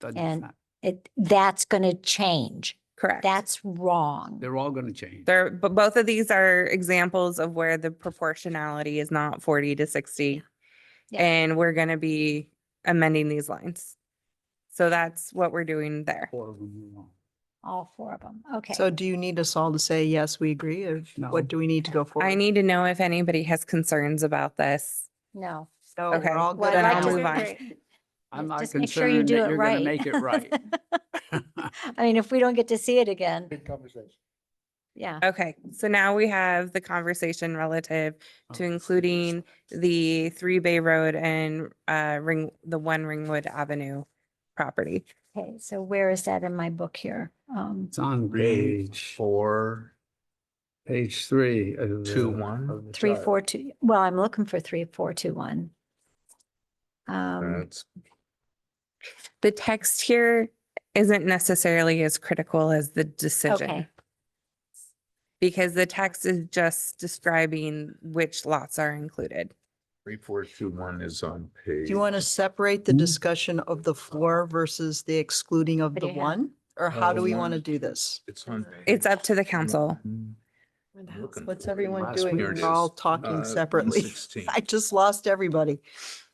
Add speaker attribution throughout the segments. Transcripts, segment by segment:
Speaker 1: Doesn't- it's
Speaker 2: And-
Speaker 1: not-
Speaker 2: It, that's going to change.
Speaker 3: Correct.
Speaker 2: That's wrong.
Speaker 1: They're all going to change.
Speaker 3: There, but both of these are examples of where the proportionality is not forty to sixty.
Speaker 2: Yeah.
Speaker 3: And we're gonna be amending these lines. So that's what we're doing there.
Speaker 1: Four of them are wrong.
Speaker 2: All four of them. Okay.
Speaker 4: So do you need us all to say, yes, we agree? Or
Speaker 1: No.
Speaker 4: what do we need to go forward?
Speaker 3: I need to know if anybody has concerns about this.
Speaker 2: No.
Speaker 4: So
Speaker 3: okay.
Speaker 4: we're all
Speaker 2: Well,
Speaker 4: good.
Speaker 3: Then
Speaker 2: I'd
Speaker 3: I'll
Speaker 2: like to
Speaker 3: move on.
Speaker 2: agree.
Speaker 1: I'm not
Speaker 2: Just make sure you
Speaker 1: concerned
Speaker 2: do
Speaker 1: that
Speaker 2: it
Speaker 1: you're going
Speaker 2: right.
Speaker 1: to make it right.
Speaker 2: I mean, if we don't get to see it again,
Speaker 5: Big conversation.
Speaker 2: yeah.
Speaker 3: Okay, so now we have the conversation relative
Speaker 1: Oh,
Speaker 3: to including the Three Bay Road and uh Ring, the One Ringwood Avenue property.
Speaker 2: Okay, so where is that in my book here? Um,
Speaker 1: It's on
Speaker 5: Page
Speaker 1: page,
Speaker 5: four,
Speaker 1: page three. of
Speaker 5: two,
Speaker 1: the-
Speaker 5: one.
Speaker 2: three, four, two, well, I'm looking for three, four, two, one. Um,
Speaker 5: That's
Speaker 3: The text here isn't necessarily as critical as the decision.
Speaker 2: okay,
Speaker 3: Because the text is just describing which lots are included.
Speaker 5: three, four, two, one is on
Speaker 4: Do
Speaker 5: page.
Speaker 4: you want to separate the
Speaker 1: Mhm.
Speaker 4: discussion of the four versus the excluding of
Speaker 2: What
Speaker 4: the
Speaker 2: do you have?
Speaker 4: one? Or how
Speaker 5: Uh,
Speaker 4: do we
Speaker 1: Oh,
Speaker 5: one.
Speaker 4: want to do this?
Speaker 5: It's on. page
Speaker 3: It's up to the council.
Speaker 5: one. I'm looking
Speaker 4: What's
Speaker 5: for it.
Speaker 4: everyone
Speaker 1: Last
Speaker 4: doing?
Speaker 1: week.
Speaker 5: Here it
Speaker 4: We're all
Speaker 5: is. Uh,
Speaker 4: talking separately.
Speaker 5: 116.
Speaker 4: I just lost everybody.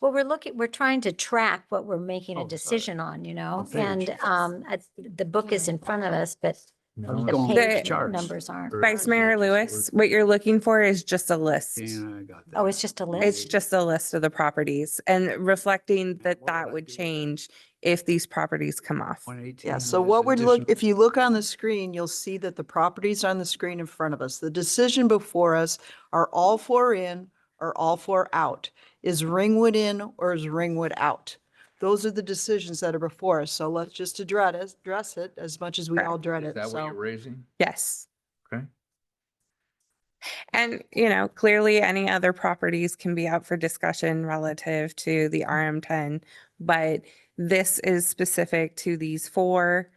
Speaker 2: well, we're looking, we're trying to track what we're making
Speaker 1: Oh,
Speaker 2: a
Speaker 1: sorry.
Speaker 2: decision on, you know?
Speaker 1: page.
Speaker 2: And, um, I- the book is in front of us, but
Speaker 5: No,
Speaker 1: I was
Speaker 2: the
Speaker 5: it's
Speaker 1: going
Speaker 5: on
Speaker 1: with
Speaker 3: the
Speaker 2: page
Speaker 1: charts.
Speaker 2: numbers aren't.
Speaker 5: Or-
Speaker 3: Vice Mayor Lewis, what you're looking for is just a list.
Speaker 1: Yeah, I got that.
Speaker 2: Oh, it's just a
Speaker 3: It's
Speaker 2: list?
Speaker 3: just a list of the properties and reflecting that
Speaker 1: What
Speaker 3: that
Speaker 1: would I
Speaker 3: would
Speaker 1: do?
Speaker 3: change if these properties come off.
Speaker 1: 118
Speaker 4: Yeah, so
Speaker 1: was
Speaker 4: what we're look,
Speaker 1: additional-
Speaker 4: if you look on the screen, you'll see that the properties on the screen in front of us, the decision before us are all four in or all four out? Is Ringwood in or is Ringwood out? Those are the decisions that are before us, so let's just address, it- address it as much as we all dread
Speaker 5: Is
Speaker 4: it,
Speaker 5: that what you're
Speaker 4: so.
Speaker 5: raising?
Speaker 3: Yes.
Speaker 5: Okay.
Speaker 3: And, you know, clearly any other properties can be up for discussion relative to the RM ten, but this is specific to these four,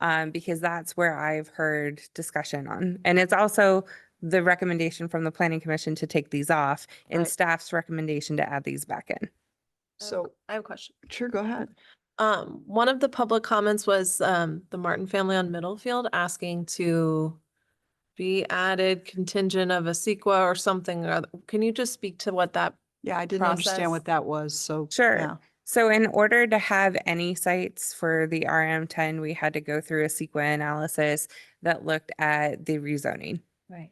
Speaker 3: um, because that's where I've heard discussion on. And it's also the recommendation from the planning commission to take these off and
Speaker 6: Right. Oh,
Speaker 3: staff's recommendation to add these back in.
Speaker 4: So,
Speaker 6: I have a question.
Speaker 4: sure, go ahead.
Speaker 6: Um, one of the public comments was, um, the Martin family on Middlefield asking to be added contingent of a sequa or something. or oth- Can you just speak to what that,
Speaker 4: Yeah, I didn't understand
Speaker 6: Process.
Speaker 4: what that was, so.
Speaker 3: Sure.
Speaker 4: yeah.
Speaker 3: So in order to have any sites for the RM ten, we had to go through a CEQA analysis that looked at the rezoning.
Speaker 2: Right.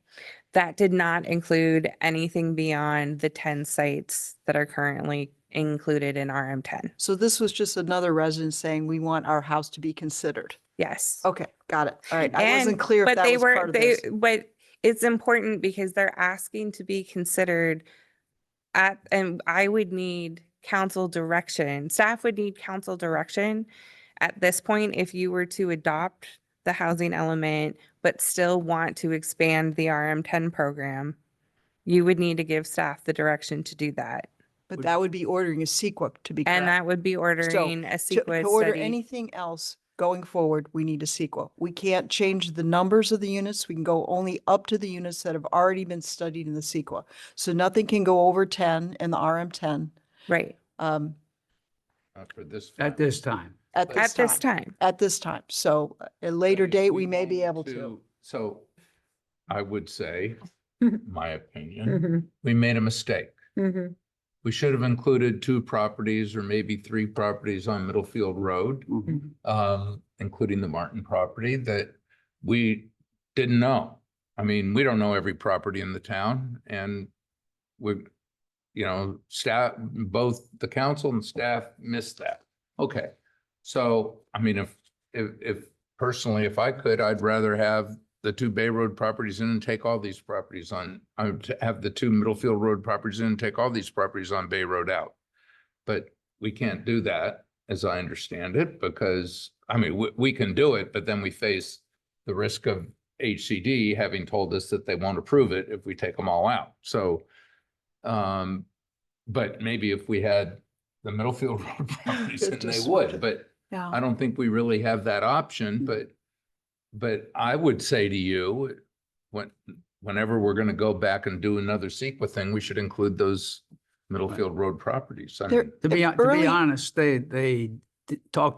Speaker 3: That did not include anything beyond the ten sites that are currently included in RM ten.
Speaker 4: So this was just another resident saying, we want our house to be considered.
Speaker 3: Yes.
Speaker 4: Okay, got it, all right. I
Speaker 3: And-
Speaker 4: wasn't clear if
Speaker 3: But
Speaker 4: that
Speaker 3: they
Speaker 4: was part
Speaker 3: were,
Speaker 4: of
Speaker 3: they,
Speaker 4: this.
Speaker 3: but it's important because they're asking to be considered at, and I would need council direction, staff would need council direction at this point if you were to adopt the housing element, but still want to expand the RM ten program, you would need to give staff the direction to do that.
Speaker 4: But
Speaker 1: Would-
Speaker 4: that would be ordering a CEQA to be
Speaker 3: And
Speaker 4: correct.
Speaker 3: that would be ordering a
Speaker 4: To-
Speaker 3: sequence
Speaker 4: To order
Speaker 3: study.
Speaker 4: anything else going forward, we need a CEQA. We can't change the numbers of the units. We can go only up to the units that have already been studied in the CEQA. So nothing can go over ten in the RM ten,
Speaker 3: Right,
Speaker 4: um, uh,
Speaker 5: Not for this.
Speaker 1: At this time.
Speaker 4: at
Speaker 3: at
Speaker 4: this
Speaker 3: this
Speaker 4: time,
Speaker 3: time.
Speaker 4: at this time. So uh, at a later
Speaker 5: If
Speaker 4: date, we may
Speaker 5: want
Speaker 4: be able to.
Speaker 5: So I would say, my
Speaker 2: 嗯
Speaker 3: Mm-hmm.
Speaker 5: opinion, we made a mistake.
Speaker 2: Mhm.
Speaker 5: We should have included two properties or maybe three properties on Middlefield Road.
Speaker 4: Mm-hmm.
Speaker 1: Mhm.
Speaker 5: um, including the Martin property that we didn't know. I mean, we don't know every property in the town and we, you know, staff, both the council and staff missed that. Okay, so, I mean, if, if, if personally, if I could, I'd rather have the two Bay Road properties in and take all these properties on, I would have the two Middlefield Road properties in and take all these properties on Bay Road out. But we can't do that as I understand it, because, I mean, we, we can do it, but then we face the risk of HCD having told us that they won't approve it if we take them all out. So, um, but maybe if we had the Middlefield Road properties, then they
Speaker 4: Just-
Speaker 5: would, but
Speaker 4: Yeah.
Speaker 5: I don't think we really have that option, but, but I would say to you, when, whenever we're going to go back and do another CEQA thing, we should include those Middlefield Road properties. I
Speaker 4: There-
Speaker 5: mean-
Speaker 1: To be,
Speaker 4: If
Speaker 1: to be
Speaker 4: early-
Speaker 1: honest, they, they d- talked